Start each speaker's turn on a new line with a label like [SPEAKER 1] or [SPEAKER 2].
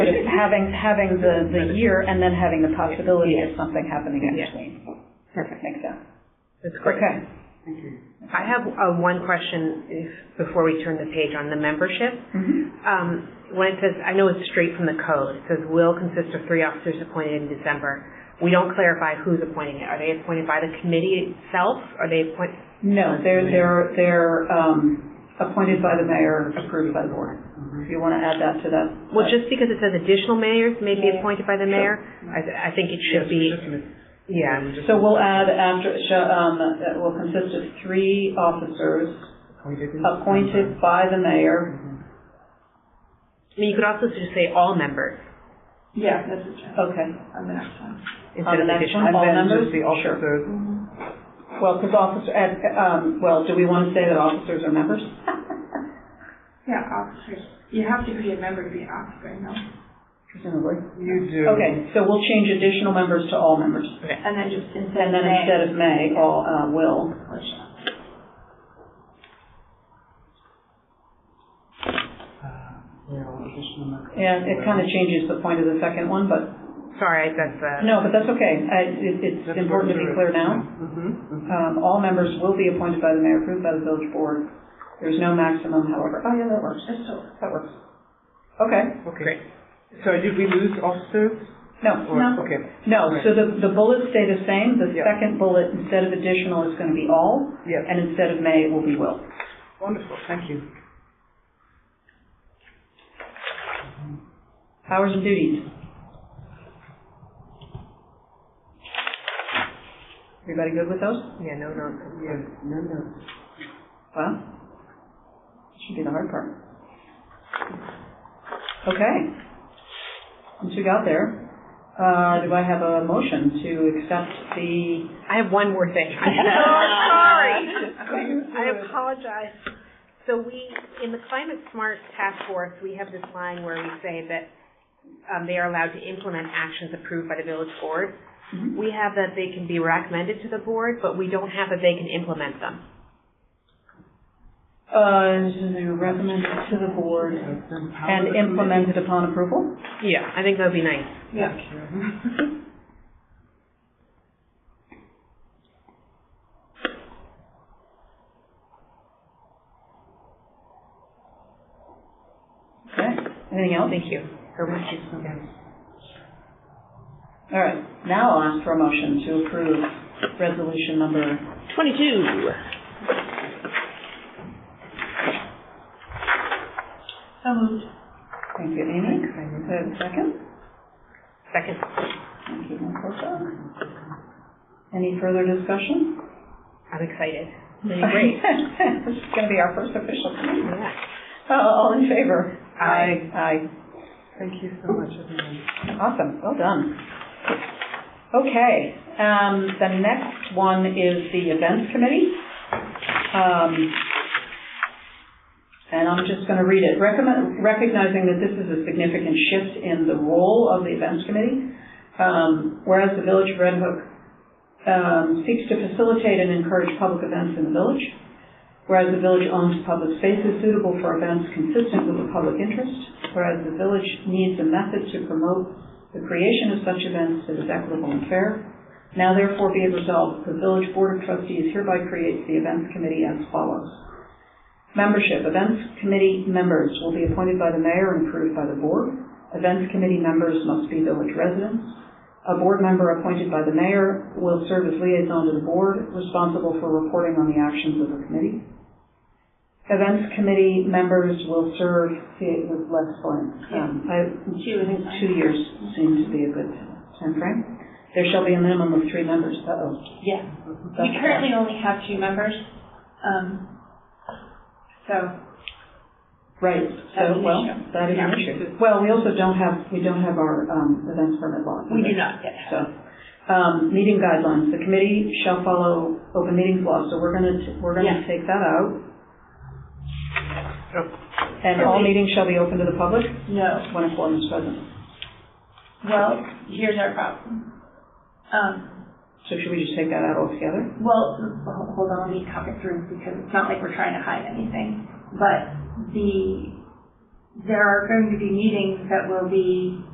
[SPEAKER 1] having, having the, the year and then having the possibility of something happening in
[SPEAKER 2] Yeah.
[SPEAKER 1] between.
[SPEAKER 2] Perfect.
[SPEAKER 1] Makes sense.
[SPEAKER 2] That's great.
[SPEAKER 1] Okay.
[SPEAKER 2] I have uh, one question if- before we turn the page on the membership.
[SPEAKER 1] Mm-hmm.
[SPEAKER 2] Um, When it says, I know it's straight from the code, it says will consist of three officers appointed in December. We don't clarify who's appointing it. Are they appointed by the committee itself? Are they appointed?
[SPEAKER 1] No, they're, they're, they're, um, appointed by the mayor, approved by the board. If you want to add that to that.
[SPEAKER 2] Well, just because it says additional mayors may be
[SPEAKER 1] Yeah.
[SPEAKER 2] appointed by the mayor, I, th- I think it should be, yeah.
[SPEAKER 1] So we'll add after, sh- um, that will consist of three officers appointed by the mayor.
[SPEAKER 2] I mean, you could also just say all members
[SPEAKER 3] Yeah, that's a check
[SPEAKER 1] Okay.
[SPEAKER 3] on the next
[SPEAKER 1] On
[SPEAKER 3] one.
[SPEAKER 2] instead
[SPEAKER 1] the
[SPEAKER 2] of
[SPEAKER 1] next
[SPEAKER 2] additional.
[SPEAKER 1] one, all
[SPEAKER 4] And then
[SPEAKER 1] members?
[SPEAKER 4] just the
[SPEAKER 1] Sure.
[SPEAKER 4] officers.
[SPEAKER 1] Well, because officer, and, um, well, do we want to say that officers are members?
[SPEAKER 3] Yeah, officers. You have to be a member to be an officer, no?
[SPEAKER 1] Presumably.
[SPEAKER 4] You do.
[SPEAKER 1] Okay, so we'll change additional members to all members.
[SPEAKER 3] And then just
[SPEAKER 1] And
[SPEAKER 3] instead of
[SPEAKER 1] then
[SPEAKER 3] may,
[SPEAKER 1] instead of may, all, uh, will.
[SPEAKER 3] or shall.
[SPEAKER 4] Uh, Yeah, well, additional members.
[SPEAKER 1] And it kind of changes the point of the second one, but,
[SPEAKER 2] Sorry, that's, uh,
[SPEAKER 1] no, but that's okay. I, it, it's
[SPEAKER 4] That's
[SPEAKER 1] important to be
[SPEAKER 4] what
[SPEAKER 1] clear
[SPEAKER 4] it is.
[SPEAKER 1] now.
[SPEAKER 4] Mhm, mhm.
[SPEAKER 1] Um, all members will be appointed by the mayor, approved by the village board. There's no maximum, however. Oh, yeah, that works.
[SPEAKER 3] Just so.
[SPEAKER 1] That works. Okay,
[SPEAKER 4] Okay. So did we lose officers?
[SPEAKER 1] no,
[SPEAKER 4] Or-
[SPEAKER 1] no.
[SPEAKER 4] Okay,
[SPEAKER 1] No, so the, the bullets stay the same. The
[SPEAKER 4] Yeah.
[SPEAKER 1] second bullet, instead of additional, is going to be all.
[SPEAKER 4] Yes.
[SPEAKER 1] And instead of may, it will be will.
[SPEAKER 4] wonderful, thank you.
[SPEAKER 1] Powers and duties. Everybody good with those?
[SPEAKER 2] yeah, no, no.
[SPEAKER 4] Yeah, no, no.
[SPEAKER 1] Well, that should be the hard part. Okay. Once we got there, uh, do I have a motion to accept the?
[SPEAKER 2] I have one more thing. I'm so sorry. I
[SPEAKER 1] I
[SPEAKER 2] apologize. So we, in the climate smart task force, we have this line where we say that um, they are allowed to implement actions approved by the village board. We have that they can be recommended to the board, but we don't have that they can implement them.
[SPEAKER 1] Uh, they were recommended to the board and implemented upon approval?
[SPEAKER 2] Yeah. I think that would be nice.
[SPEAKER 3] Yeah.
[SPEAKER 1] Okay. Anything else?
[SPEAKER 2] Thank you. very much.
[SPEAKER 1] All right. Now I'll ask for a motion to approve resolution number
[SPEAKER 5] Twenty-two.
[SPEAKER 3] So moved.
[SPEAKER 1] Thank you, Amy. Do I have a second?
[SPEAKER 2] Second.
[SPEAKER 1] Thank you, Ms. Herzog. Any further discussion?
[SPEAKER 2] I'm excited. It'll be great.
[SPEAKER 1] This is going to be our first official meeting.
[SPEAKER 2] Yeah.
[SPEAKER 1] Uh, All in favor?
[SPEAKER 4] Aye.
[SPEAKER 1] Aye.
[SPEAKER 4] Thank you so much, everyone.
[SPEAKER 1] Awesome, well done. Okay, um, the next one is the events committee. Um, and I'm just gonna read it. Recommend, recognizing that this is a significant shift in the role of the events committee. Um, whereas the village of Red Hook, um, seeks to facilitate and encourage public events in the village. Whereas the village owns public spaces suitable for events consistent with the public interest. Whereas the village needs a method to promote the creation of such events that is equitable and fair. Now therefore be it resolved, that the village board of trustees hereby creates the events committee as follows. Membership, events committee members will be appointed by the mayor and approved by the board. Events committee members must be village residents. A board member appointed by the mayor will serve as liaison to the board, responsible for reporting on the actions of the committee. Events committee members will serve, see, it was less blank. Um, I,
[SPEAKER 3] She was in.
[SPEAKER 1] two years seems to be a good timeframe. There shall be a minimum of three members. Uh-oh.
[SPEAKER 3] Yeah. We
[SPEAKER 1] That's-
[SPEAKER 3] currently only have two members. Um, so,
[SPEAKER 1] Right,
[SPEAKER 3] That's
[SPEAKER 1] so,
[SPEAKER 3] an
[SPEAKER 1] well,
[SPEAKER 3] issue.
[SPEAKER 1] that is an
[SPEAKER 3] Yeah.
[SPEAKER 1] issue. Well, we also don't have, we don't have our, um, events permit law.
[SPEAKER 3] we do not yet have.
[SPEAKER 1] So, um, meeting guidelines, the committee shall follow open meetings law, so we're gonna, t- we're gonna
[SPEAKER 3] Yeah. Oh.
[SPEAKER 1] take that out.
[SPEAKER 4] Yep.
[SPEAKER 1] And
[SPEAKER 3] So
[SPEAKER 1] all
[SPEAKER 3] we-
[SPEAKER 1] meetings shall be open to the public
[SPEAKER 3] No.
[SPEAKER 1] when a quorum is present.
[SPEAKER 3] Well, here's our problem. Um,
[SPEAKER 1] So should we just take that out altogether?
[SPEAKER 3] well, ho- hold on, let me talk it through because it's not like we're trying to hide anything. But the, there are going to be meetings that will be